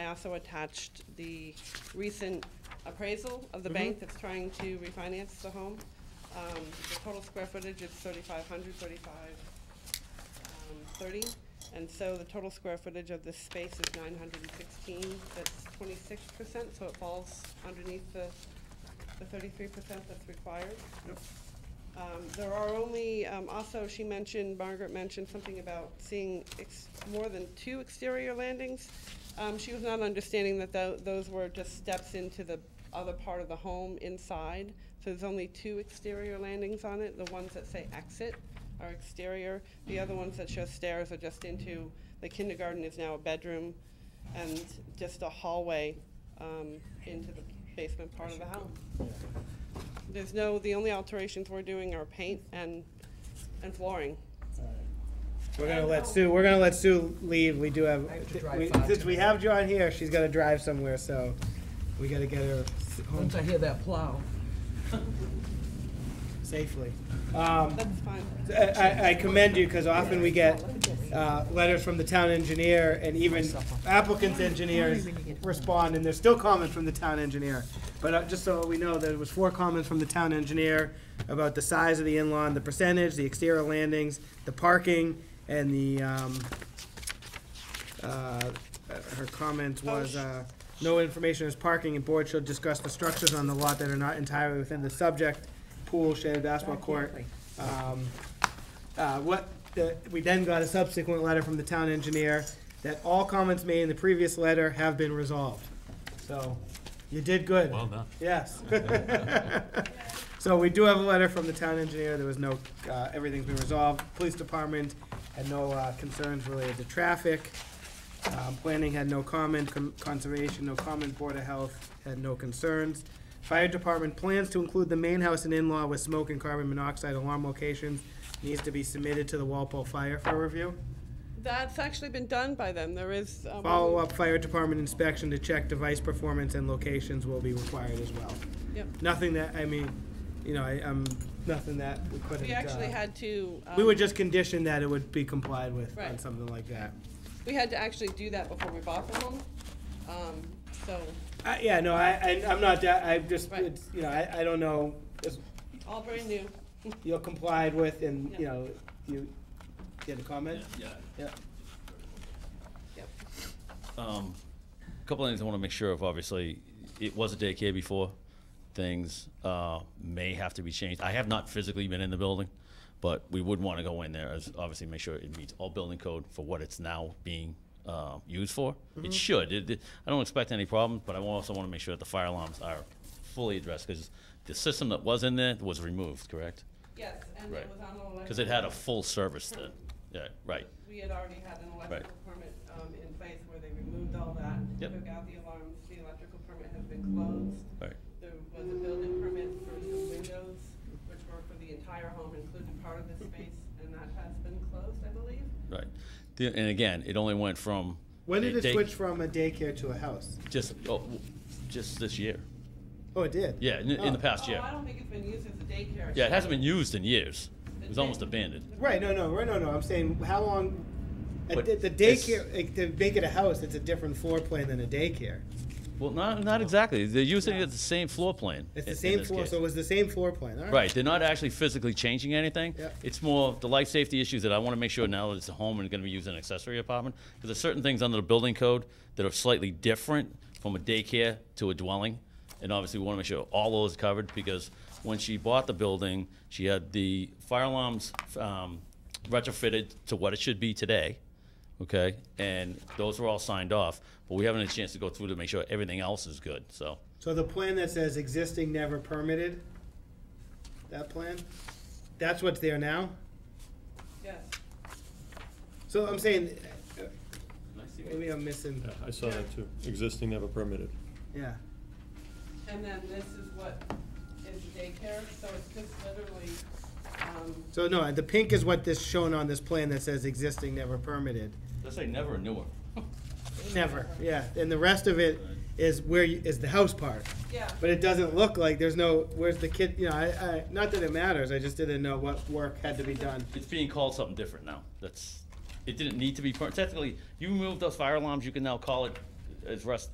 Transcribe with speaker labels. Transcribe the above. Speaker 1: also attached the recent appraisal of the bank that's trying to refinance the home. Um, The total square footage is 3,500, 35, um, 30, and so the total square footage of this space is 916, that's 26%, so it falls underneath the the 33% that's required. Um, There are only, um, also, she mentioned, Margaret mentioned something about seeing ex- more than two exterior landings. Um, She was not understanding that tho- those were just steps into the other part of the home inside. So there's only two exterior landings on it. The ones that say exit are exterior. The other ones that show stairs are just into, the kindergarten is now a bedroom and just a hallway um, into the basement part of the house. There's no, the only alterations we're doing are paint and, and flooring.
Speaker 2: We're gonna let Sue, we're gonna let Sue leave, we do have,
Speaker 3: I have to drive
Speaker 2: we-
Speaker 3: five
Speaker 2: since we
Speaker 3: tonight.
Speaker 2: have John here, she's gotta drive somewhere, so we gotta get her s- home
Speaker 3: Once I hear that plow.
Speaker 2: safely. Um,
Speaker 1: That's fine.
Speaker 2: I- I, I commend you, because often we get, uh, letters from the town engineer and even applicants' engineers respond, and there's still comments from the town engineer. But uh, just so we know, there was four comments from the town engineer about the size of the in-law, and the percentage, the exterior landings, the parking, and the, um, uh, her comment was, uh, no information is parking, and board shall discuss the structures on the lot that are not entirely within the subject, pool, shaded basketball court. Um, uh, what, the- we then got a subsequent letter from the town engineer that all comments made in the previous letter have been resolved. So, you did good.
Speaker 4: Well done.
Speaker 2: Yes. So we do have a letter from the town engineer, there was no, uh, everything's been resolved. Police department had no uh, concerns related to traffic. Um, Planning had no comment, Com- conservation, no comment, Board of Health had no concerns. Fire department plans to include the main house and in-law with smoke and carbon monoxide alarm locations. Needs to be submitted to the Walpole Fire for review.
Speaker 1: That's actually been done by them. There is. uh, one-
Speaker 2: Follow-up fire department inspection to check device performance and locations will be required as well.
Speaker 1: Yep.
Speaker 2: Nothing that, I mean, you know, I, I'm, nothing that we couldn't.
Speaker 1: We actually
Speaker 2: uh,
Speaker 1: had to.
Speaker 2: We
Speaker 1: um,
Speaker 2: would just condition that it would be complied with on
Speaker 1: Right.
Speaker 2: something like that.
Speaker 1: We had to actually do that before we bought the home. Um, So
Speaker 2: Uh, yeah, no, I, I, I'm not, that- I just,
Speaker 1: Right.
Speaker 2: it's, you know, I, I don't know, it's-
Speaker 1: all brand new.
Speaker 2: you're complied with and, you
Speaker 1: Yeah.
Speaker 2: know, you, you had a comment? Yeah.
Speaker 1: Yep.
Speaker 4: Um, a couple of things I want to make sure of. Obviously, it was a daycare before. Things uh, may have to be changed. I have not physically been in the building, but we would want to go in there as obviously make sure it meets all building code for what it's now being uh, used for. It should. It, it- I don't expect any problems, but I also want to make sure that the fire alarms are fully addressed because the system that was in there was removed. Correct?
Speaker 1: Yes, and it
Speaker 4: Right.
Speaker 1: was on the electric.
Speaker 4: Because it had a full service then. Yeah. Right.
Speaker 1: We had already had an electrical permit um, in place where they removed all that.
Speaker 4: Yep.
Speaker 1: Took out the alarms. The electrical permit has been closed.
Speaker 4: Right.
Speaker 1: There was a building permit for some windows, which were for the entire home, including part of the space, and that has been closed, I believe.
Speaker 4: Right. The, and again, it only went from.
Speaker 2: When did
Speaker 4: a
Speaker 2: it
Speaker 4: day-
Speaker 2: switch from a daycare to a house?
Speaker 4: Just, oh, w- just this year.
Speaker 2: Oh, it did?
Speaker 4: Yeah, in, in the
Speaker 2: Oh.
Speaker 4: past year.
Speaker 1: Oh, I don't think it's been used as a daycare.
Speaker 4: Yeah, it hasn't been used in years. It was almost abandoned.
Speaker 2: Right, no, no, right, no, no, I'm saying, how long, a
Speaker 4: But
Speaker 2: da- the
Speaker 4: it's-
Speaker 2: daycare, like, to make it a house, it's a different floor plan than a daycare.
Speaker 4: Well, not, not exactly. They're using it as the same floor plan.
Speaker 2: It's
Speaker 4: in-
Speaker 2: the
Speaker 4: in
Speaker 2: same
Speaker 4: this
Speaker 2: floor,
Speaker 4: case.
Speaker 2: so it was the same floor plan, all right?
Speaker 4: Right, they're not actually physically changing anything.
Speaker 2: Yep.
Speaker 4: It's more the life safety issues that I want to make sure now that it's a home and going to be used as an accessory apartment. Because there's certain things under the building code that are slightly different from a daycare to a dwelling. And obviously, we want to make sure all those are covered because when she bought the building, she had the fire alarms um, retrofitted to what it should be today. Okay, and those were all signed off, but we haven't had a chance to go through to make sure everything else is good, so.
Speaker 2: So the plan that says existing never permitted, that plan, that's what's there now?
Speaker 1: Yes.
Speaker 2: So I'm saying, uh, maybe I'm missing,
Speaker 5: Yeah, I saw that too. Existing never permitted.
Speaker 2: yeah.
Speaker 1: And then this is what is daycare, so it's just literally, um,
Speaker 2: So no, the pink is what this shown on this plan that says existing never permitted.
Speaker 4: Let's say never a newer.
Speaker 2: Never, yeah. And the rest of it is where, you- is the house part.
Speaker 1: yeah.
Speaker 2: But it doesn't look like, there's no, where's the kid, you know, I, I, not that it matters, I just didn't know what work had to be done.
Speaker 4: It's being called something different now. That's, it didn't need to be, per- technically, you remove those fire alarms, you can now call it as Russ